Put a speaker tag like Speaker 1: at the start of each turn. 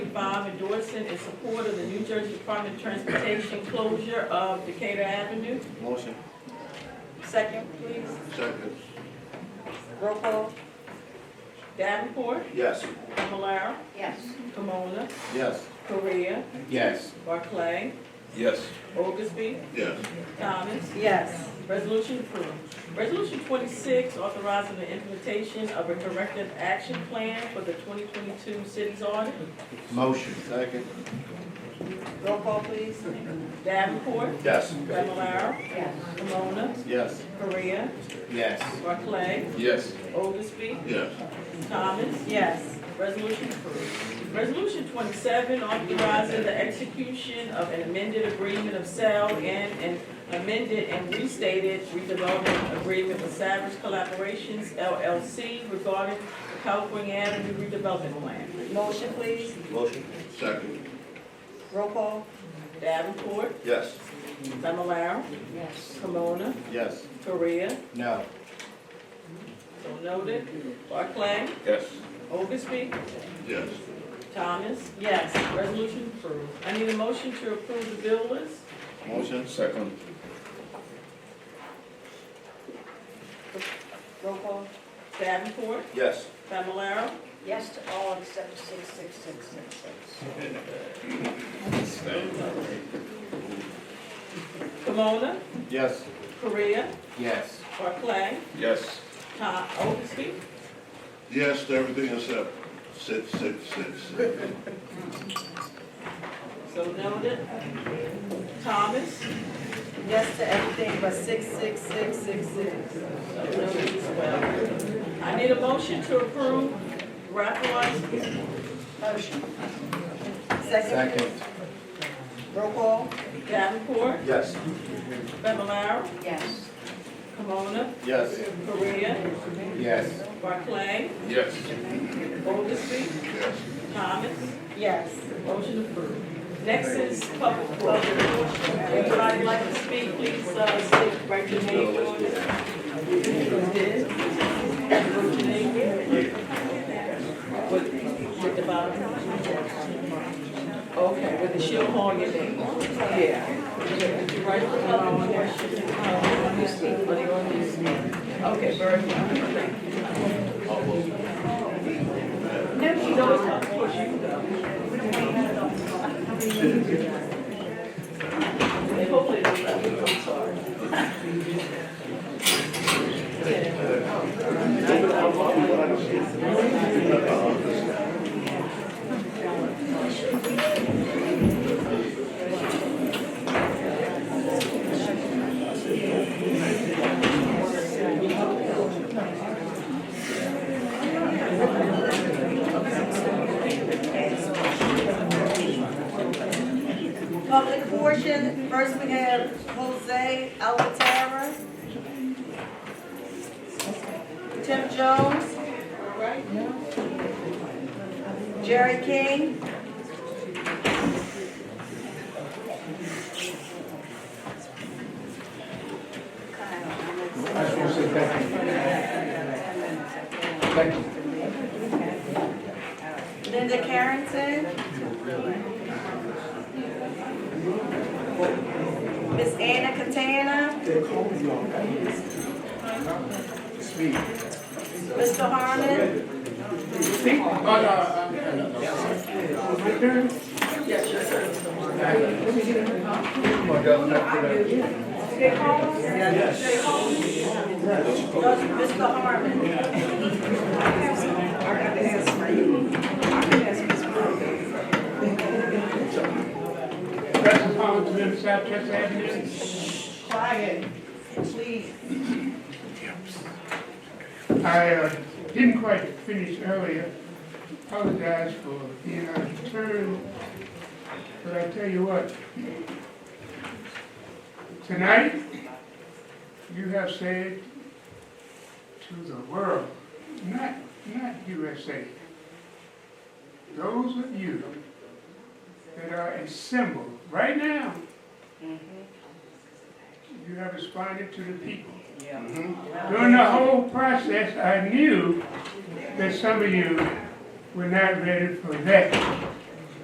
Speaker 1: endorsing in support of the New Jersey Department of Transportation closure of Decatur Avenue.
Speaker 2: Motion.
Speaker 1: Second, please.
Speaker 2: Second.
Speaker 1: Roll call. Davenport,
Speaker 2: Yes.
Speaker 1: Fablelaro,
Speaker 3: yes,
Speaker 1: Camona,
Speaker 2: Yes.
Speaker 1: Korea,
Speaker 2: Yes.
Speaker 1: Barclay,
Speaker 2: Yes.
Speaker 1: Oglesby,
Speaker 2: Yes.
Speaker 1: Thomas.
Speaker 4: yes,
Speaker 1: Resolution approved. Resolution twenty-six, authorizing the implementation of a corrective action plan for the twenty twenty-two cities audit.
Speaker 2: Motion. Second.
Speaker 4: roll call please,
Speaker 1: Davenport,
Speaker 2: Yes.
Speaker 1: Fablelaro,
Speaker 3: yes,
Speaker 1: Camona,
Speaker 2: Yes.
Speaker 1: Korea,
Speaker 2: Yes.
Speaker 1: Barclay,
Speaker 2: Yes.
Speaker 1: Oglesby,
Speaker 2: Yes.
Speaker 1: Thomas.
Speaker 4: yes,
Speaker 1: Resolution approved. Resolution twenty-seven, authorizing the execution of an amended agreement of sale and an amended and restated redevelopment agreement with Savage Collaborations LLC regarding the California Avenue redevelopment plan.
Speaker 4: motion please,
Speaker 2: Motion. Second.
Speaker 4: roll call,
Speaker 1: Davenport,
Speaker 2: Yes.
Speaker 1: Fablelaro,
Speaker 3: yes,
Speaker 1: Camona,
Speaker 2: Yes.
Speaker 1: Korea,
Speaker 2: No.
Speaker 1: so noted, Barclay,
Speaker 2: Yes.
Speaker 1: Oglesby,
Speaker 2: Yes.
Speaker 1: Thomas.
Speaker 4: yes,
Speaker 1: Resolution approved. I need a motion to approve the bill list.
Speaker 2: Motion. Second.
Speaker 4: roll call,
Speaker 1: Davenport,
Speaker 2: Yes.
Speaker 1: Fablelaro,
Speaker 3: yes to all except six, six, six, six, six.
Speaker 1: Camona,
Speaker 2: Yes.
Speaker 1: Korea,
Speaker 2: Yes.
Speaker 1: Barclay,
Speaker 2: Yes.
Speaker 1: Tom Oglesby,
Speaker 5: Yes to everything except six, six, six.
Speaker 1: so noted. Thomas,
Speaker 4: yes to everything but six, six, six, six, six,
Speaker 1: so noted as well. I need a motion to approve Rapalise,
Speaker 4: motion. Second,
Speaker 2: Second.
Speaker 4: roll call,
Speaker 1: Davenport,
Speaker 2: Yes.
Speaker 1: Fablelaro,
Speaker 3: Yes,
Speaker 1: Camona,
Speaker 2: Yes.
Speaker 1: Korea,
Speaker 2: Yes.
Speaker 1: Barclay,
Speaker 2: Yes.
Speaker 1: Oglesby,
Speaker 5: Yes,
Speaker 1: Thomas,
Speaker 4: yes,
Speaker 1: motion approved. Next is public portion. Anybody like to speak, please, uh, state, write your name, Jordan. Who's this? Wrote your name? With, with the bottom? Okay, with the shield on your name. Yeah. uh, Did you write the bottom portion? Are they on this? Okay, very good, thank you. No, she's always public portion, you know. And hopefully it'll be, I'm sorry.
Speaker 4: public portion, first we have Jose Alvatara, Tim Jones, Jerry King,
Speaker 6: I just want to say thank you. Thank you.
Speaker 4: Linda Carrington. Miss Anna Catana. Mr. Harmon. Jay Holmes? Jay Holmes? No, it's Mr. Harmon.
Speaker 7: Present Congressman Southchester Avenue.
Speaker 4: Quiet, please.
Speaker 7: I uh, didn't quite finish earlier. Apologize for being out of turn. But I tell you what. Tonight, you have said to the world, not, not USA, those of you that are assembled right now, you have responded to the people. During the whole process, I knew that some of you were not ready for that.